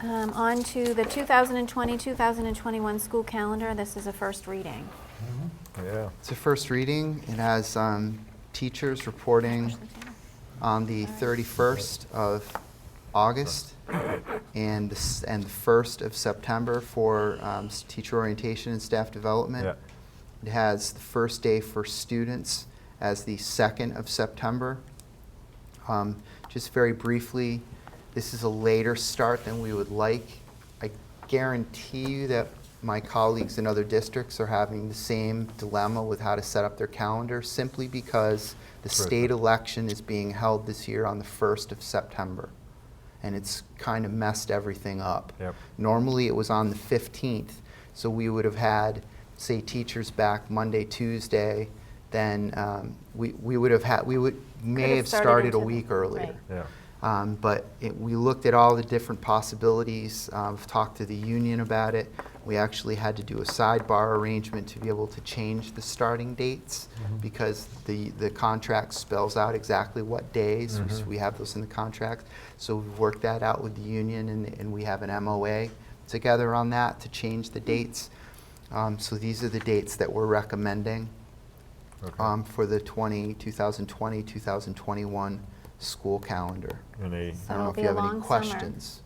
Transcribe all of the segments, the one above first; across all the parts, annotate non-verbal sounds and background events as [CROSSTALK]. Um, On to the 2020-2021 school calendar. This is a first reading. Mm-hmm. Yeah. It's a first reading. It has um, teachers reporting on the 31st of August and the s- and the 1st of September for um, s- teacher orientation and staff development. Yeah. It has the first day for students as the 2nd of September. Um, Just very briefly, this is a later start than we would like. I guarantee you that my colleagues in other districts are having the same dilemma with how to set up their calendar simply because the Right. state election is being held this year on the 1st of September. And it's kind of messed everything up. Yep. Normally, it was on the 15th, so we would have had, say, teachers back Monday, Tuesday, then um, we we would have had, we would, may have have started started a into- week earlier. right. Yeah. Um, But it- we looked at all the different possibilities, uh, We've talked to the union about it. We actually had to do a sidebar arrangement to be able to change the starting dates Mhm. because the, the contract spells out exactly what days. We s- Mhm. We have those in the contract. So we've worked that out with the union and, and we have an MOA together on that to change the dates. Um, So these are the dates that we're recommending Okay. um, for the 20, 2020, 2021 school calendar. And a- I don't So it'll know if you be have a any long summer. questions.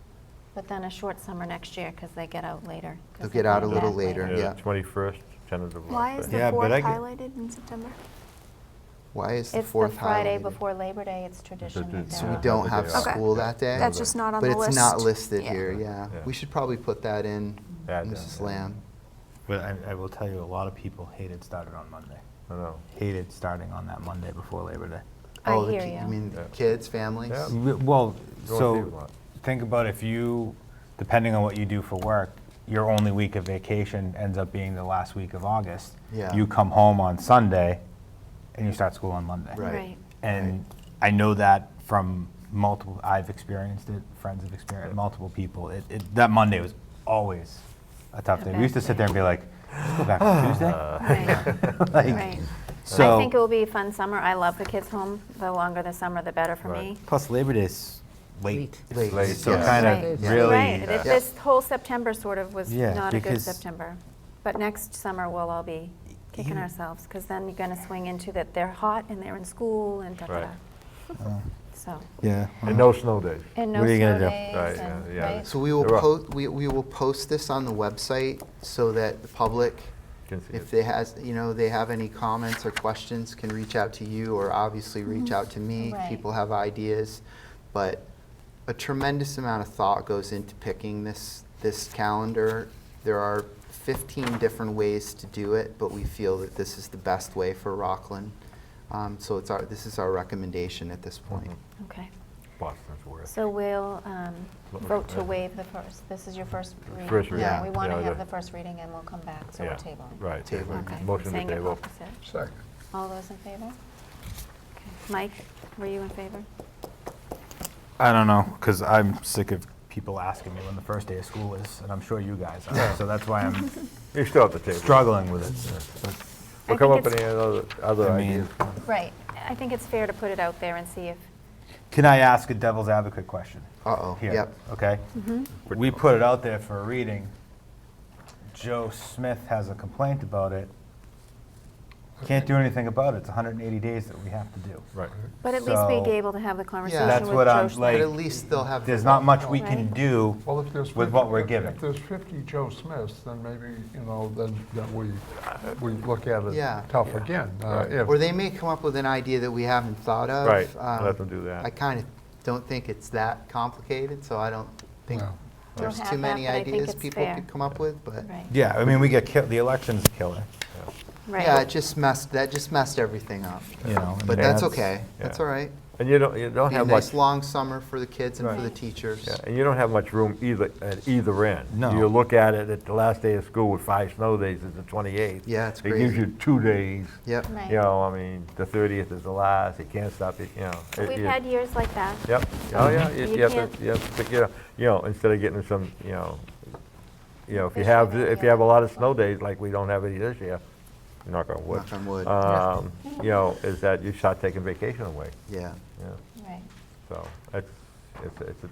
But then a short summer next year because they get out later. 'cause They'll they're get out going a little back later, yeah, yeah. 21st, tentative. Why is last the day. Yeah, but fourth I get- highlighted in September? Why is the It's the fourth Friday highlighted? before Labor Day. It's tradition. that it's So they're we Yeah. out. don't have Another day off. school Okay. that day? That's That's just not on But the list. it's not listed here, Yeah. yeah. Yeah. We should probably put that in, Add that, Mrs. yeah. Lamb. But I, I will tell you, a lot of people hated started on Monday. I know. Hated starting on that Monday before Labor Day. I Oh, the hear ki- you. mean the Yeah. kids, families? Yeah. W- Well, Go with you, so Lot. think about if you, depending on what you do for work, your only week of vacation ends up being the last week of August. Yeah. You come home on Sunday and you start school on Monday. Right. Right. And I know that from multiple, I've experienced it, friends have experienced it, multiple people. It, it, that Monday was always a tough A day. bad We used to sit day. there and be like, "Let's go [SIGHS] back on Uh, Tuesday. Right. [LAUGHS] Like, Right. So, I think it will be a fun summer. I love the kids home. The longer the summer, the better for Right. me. plus Labor Day's late. Late. Late, So yeah. kind Right. of Yeah. really. Right, uh, If this whole September sort of was Yeah, not a good because- September. But next summer, we'll all be kicking Yeah. ourselves, because then you're going to swing into that they're hot and they're in school and da-da-da. Right. uh, So, Yeah. And uh-huh. no snow days. and no What are you snow gonna do? Right, days yeah, and, yeah. right? So we will They're up. post, we, we will post this on the website so that the public, Can see if it. they has, you know, they have any comments or questions, can reach out to you or obviously reach out to me. Right. People have ideas, but a tremendous amount of thought goes into picking this, this calendar. There are 15 different ways to do it, but we feel that this is the best way for Rockland. Um, So it's our, this is our recommendation at this point. Mhm. Mm-hmm. Okay. Boston's worth. So we'll um, What was vote it? to waive the first, this is your first reading. First reading. Yeah. We want to Yeah, have the- the first reading and we'll come back, so we're Yeah, tabling. Right. Table. Okay. Motion to Saying it table. opposite. Second. All those in favor? Okay. Mike, were you in favor? I don't know, because I'm sick of people asking me when the first day of school is, and I'm sure you guys are. So that's [LAUGHS] why I'm You still have the table. struggling with it. I We'll come think up with it's- any other, other I mean- ideas. Right. I think it's fair to put it out there and see if, Can I ask a devil's advocate question? Uh-oh, here, yep. Okay? Mm-hmm. We put it out there for a reading. Joe Smith has a complaint about it. Can't do anything about it. It's 180 days that we have to do. Right. but at least being So- able to have the conversation with that's Josh. what I'm But Like, at least they'll have. There's not much we Right. can do Well, if there's. with 50 what we're if- given. If there's 50 Joe Smiths, then maybe, you know, then, then we, we look at Yeah. it tough again. Uh, Right. if- Or they may come up with an idea that we haven't thought of. Right, Um, let them do that. I kind of don't think it's that complicated, so I don't think No. there's Don't too have that, many but I think ideas it's people fair. could come up with, but. Right, Yeah, I mean, we get killed, the election's a killer, right. Yeah, it just messed, that just messed everything up. you know. and But that's that's- okay, that's yeah. all right. And you don't, you don't Be a have much. nice long summer for the kids and for the Right. teachers. Yeah, and you don't have much room either, at either end. No. You look at it, at the last day of school with five snow days is the 28th. Yeah, it's It gives crazy. you two days. Yep, Right. You know, I mean, the 30th is the last, you can't stop it, you know. But it- We've it- had years like that. Yep, oh, yeah, You you you have can't- to, you have to, you know, you know, instead of getting some, you know, you know, if you Fish have, with it, if you yeah. have a lot of snow days, like we don't have any this year, knock on wood. knock on wood, Um, You know, is that you start taking vacation away, yeah. you know, Right. so, it's, it's, it's a